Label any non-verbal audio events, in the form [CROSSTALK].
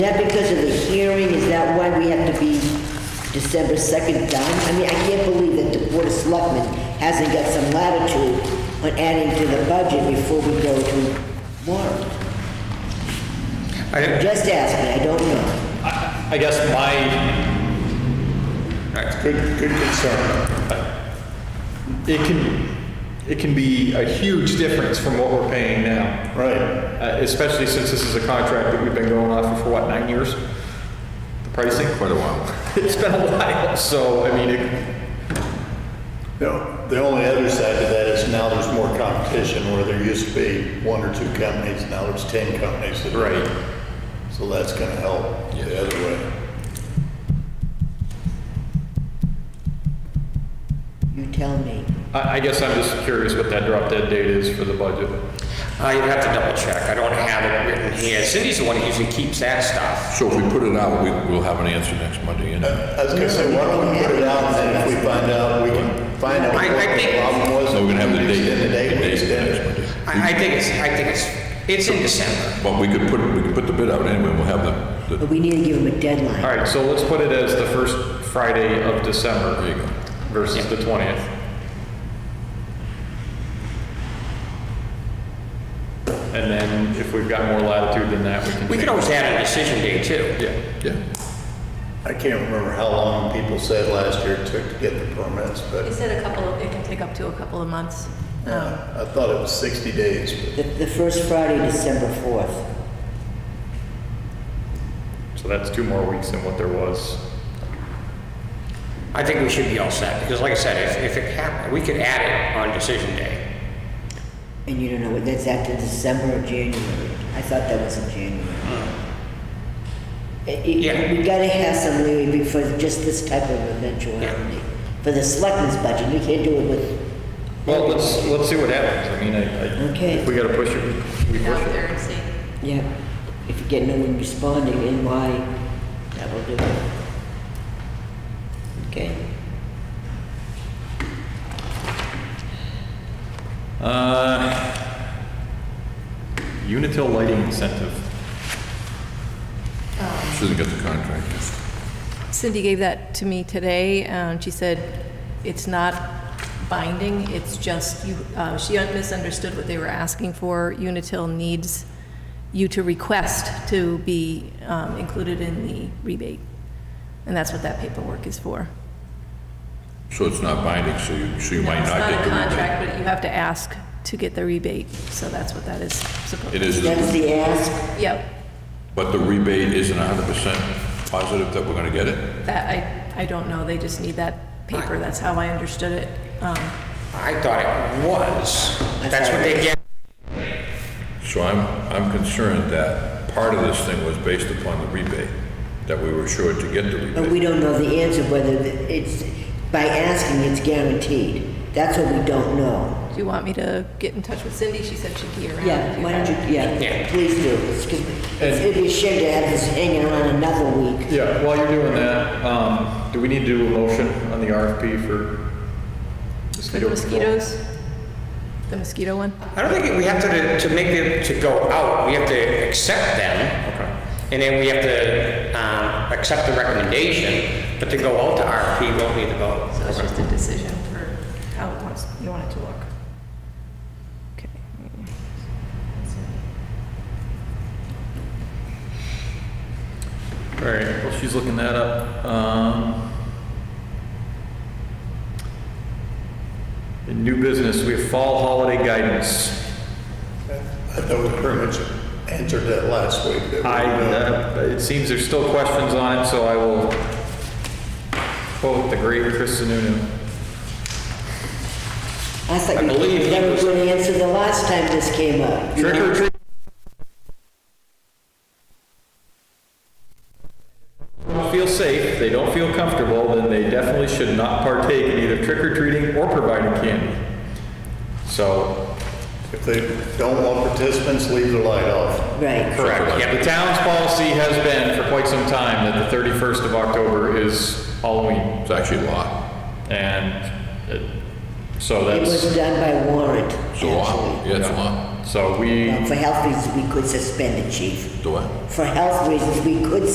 that because of the hearing, is that why we have to be December 2nd done? I mean, I can't believe that the Board of Selectmen hasn't got some latitude on adding to the budget before we go to warrant. I, Just ask me, I don't know. I I guess my, that's good, good concern. it can, it can be a huge difference from what we're paying now. Right. Uh, Especially since this is a contract that we've been going off for, for what, nine years? The pricing? Quite a while. [LAUGHS] It's been a while, so, I mean, it, No, the only other side to that is now there's more competition where there used to be one or two companies, now there's 10 companies. that- Right. So that's going to help the other way. You tell me. I, I guess I'm just curious what that drop dead date is for the budget. I Uh, have to double check. I don't have it written here. Cindy's the one who usually keeps that stuff. So if we put it out, we, we'll have an answer next Monday, you know? I was going to say, why don't we put it out and then if we find out, we can find out I- I what the think- problem was. So we're gonna have the date, Extend the the date, we date for extend next it. Monday. I, I think it's, I think it's, it's in December. But we could put, we could put the bid out anyway, we'll have the, the, But we need to give them a All deadline. right, so let's put it as the first Friday of December. there you go. Versus the 20th. And then if we've got more latitude than that, we can. We could change always add a decision day too. it. Yeah. Yeah. I can't remember how long people said last year it took to get the permits, They but said a couple, it can take up to a couple of months. Um, uh, I thought it was 60 days. but- The, the first Friday, December 4th. So that's two more weeks than what there was. I think we should be all set, because like I said, if, if it happened, we could add it on decision day. And you don't know, what that's after December or January. I thought that was in January. It- it- Yeah. We gotta have some leeway for just this type of eventuality. For the selectmen's budget, we can't do it with. Well, let's, let's see what happens. I mean, I, I. Okay. If we gotta push it, we Out push there it. and see. Yeah, if you get no one responding, then why, that will do it. Okay, Uh, Unitil lighting incentive. Shouldn't get the contract. Cindy gave that to me today, and she said it's not binding, it's just you, uh, she misunderstood what they were asking for. Unitil needs you to request to be um, included in the rebate, and that's what that paperwork is for. So it's not binding, so you, so you might not get It's the not rebate. a contract, but you have to ask to get the rebate, so that's what that is supposed to It be. that's is, the ask. Yep, but the rebate isn't hundred percent positive that we're gonna get it? that, I, I don't know, they just need that paper, that's how I understood it. Um, I thought it was. That's what they get. So I'm, I'm concerned that part of this thing was based upon the rebate, that we were sure to get the But we rebate. don't know the answer whether it's, by asking, it's guaranteed. That's what we don't know. Do you want me to get in touch with Cindy? She said she'd be around. if Yeah, you why don't have- you, yeah, Yeah. please do. It's 'cause it's- It'd be a shame to have this hanging around another week. Yeah, while you're doing that, um, do we need to do a motion on the RFP for For mosquito the control? mosquitoes? The mosquito one? I don't think we have to, to make it, to go out, we have to accept them. Okay. And then we have to, um, accept the recommendation, but to go out to RFP, we'll need to vote. So it's just a decision for how it wants, you want it to look. Okay. All right, well, she's looking that up. Um, In new business, we have fall holiday guidance. I thought we pretty much answered that last week. that we I, know. uh, it seems there's still questions on it, so I will quote the great Chris Sununu. I thought I you believe he never was- would answer the last time this came up. Trick or treat. Don't Feel safe, they don't feel comfortable, then they definitely should not partake in either trick or treating or providing candy. So, If they don't want participants, leave the light off. Right. Correct, yeah, Yeah, the town's policy has been for quite some time that the 31st of October is Halloween, It's actually law, and uh, so It that's, was done by warrant, it's a law, actually. yeah, it's a law. So we. Well, For health reasons, we could suspend the chief. Do I? For health reasons, we could